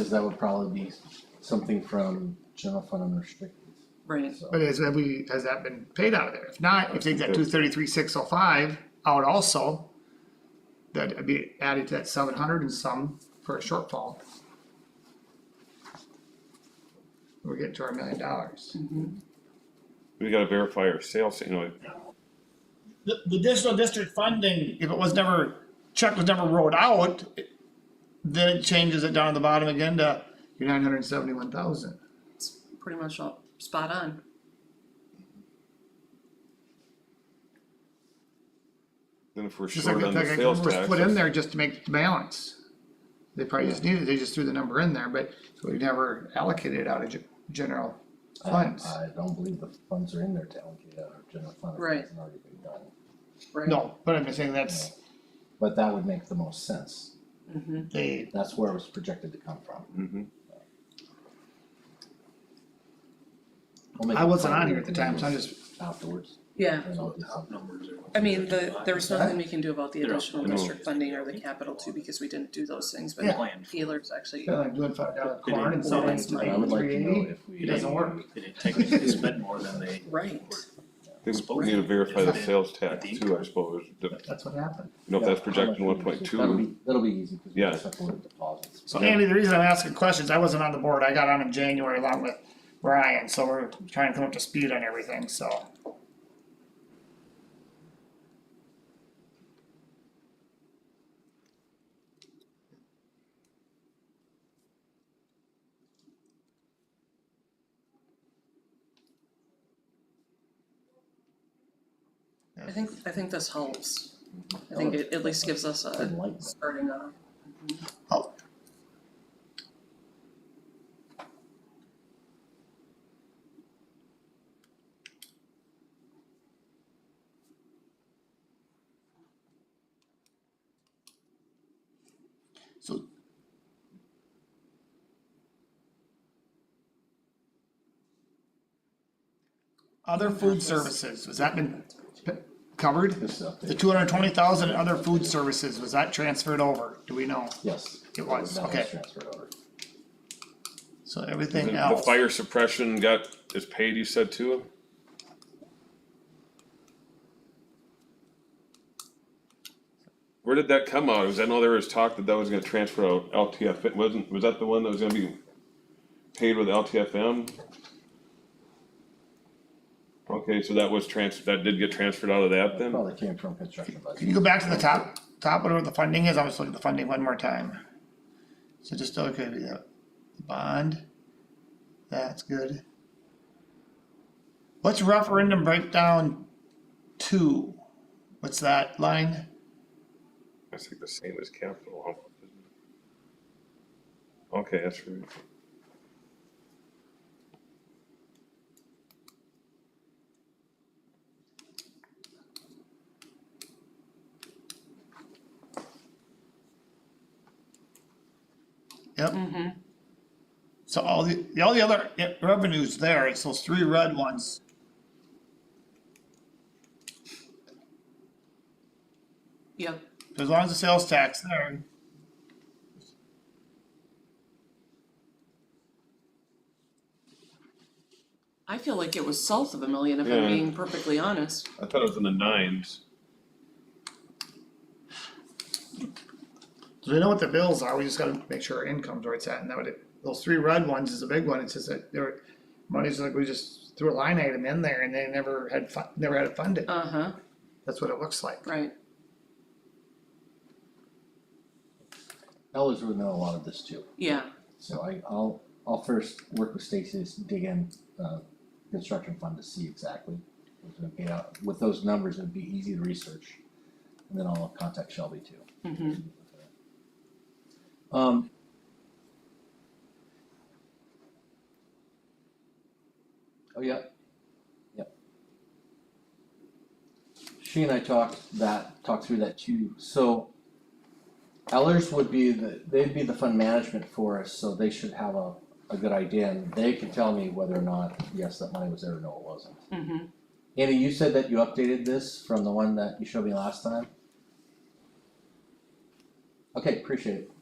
Cause that would probably be something from general fund unrestricted, Right, so. But has, have we, has that been paid out of there? If not, if they got That's two good. thirty-three, six oh five out also, that'd be added to that seven hundred and some for a shortfall. We're getting to our million dollars. We gotta verify our sales, you know, The, the additional district funding, if it was never, check was never wrote out, it- then it changes it down at the bottom again to your nine hundred and seventy-one thousand. it's pretty much all spot on. then if we're Just like, short on the like, sales it was tax. put in that's- there just to make the balance. They probably just needed, they just threw the number in there, but we never allocated it out of ge- general Uh, funds. I don't believe the funds are in there to allocate out of general fund. if it Right. hasn't already been done, Right. No, but I'm just saying that's, but that would make the most sense, they, that's where it was projected to come from. Mhm. We'll make I a wasn't final on here at the time, so I numbers just, Afterwards. Yeah, and I'll do something. I mean, the, there was nothing we can do about the They're- additional no. district funding or the capital too, because we didn't do those things, Yeah. but Keeler's actually, they're like doing five dollar corn and It selling it is, to But I would like to know if we. It doesn't work. They didn't technically spend more than they. right, They need to verify the sales tax too, I suppose, the- you That's what happened. know, if that's Yeah, how projecting much one we point use. That'll two, be, that'll be easy, cause we Yeah. just have to look at deposits. So Yeah. Andy, the reason I'm asking questions, I wasn't on the board, I got on in January along with Ryan, so we're trying to come up to speed on everything, so. I think, I think this helps. I think it at least gives us a uh, Enlightenment. starting off. Oh. So. Other food services, has that been p- covered? This is up The there. two hundred and twenty thousand other food services, was that transferred over? Do we know? Yes. It was, That okay. transferred over. So the everything the else, fire suppression got, is paid, you said too? Where did that come out? Was, I know there was talk that that was gonna transfer out LTF, it wasn't, was that the one that was gonna be paid with LTFM? Okay, so that was trans, that did get transferred out of that then? Probably came from construction can budget. you go back to the top, top of where the funding is? I was looking at the funding one more time. So just, okay, the bond, that's good. What's referendum breakdown two? What's that line? That's like the same as capital. huh? Okay, that's right. Yep. So all the, the- all the other yeah, revenues there, it's those three red ones. Yep, So As long as the sales tax there, I feel like it was south of a million, if I'm Yeah. being perfectly honest. I thought it was in the nines. So we know what the bills are, we just gotta make sure our income's where it's at, and that would, those three red ones is a big one, it's just that there were. Money's like, we just threw a line item in there and they never had fu- never had it funded, Uh-huh, that's what it looks like. right, Elders would know a lot of this too, yeah, so I, I'll, I'll first work with Stacy to dig in, uh, construction fund to see exactly. what's gonna be out. With those numbers, it'd be easy to research, and then I'll contact Shelby too. mm-hmm, Um. Oh, yeah. Yep. She and I talked that, talked through that too, so. Ellers would be the, they'd be the fund management for us, so they should have a, a good idea, and they can tell me whether or not, yes, that money was there or no, it wasn't. mm-hmm, Andy, you said that you updated this from the one that you showed me last time? Okay, appreciate it.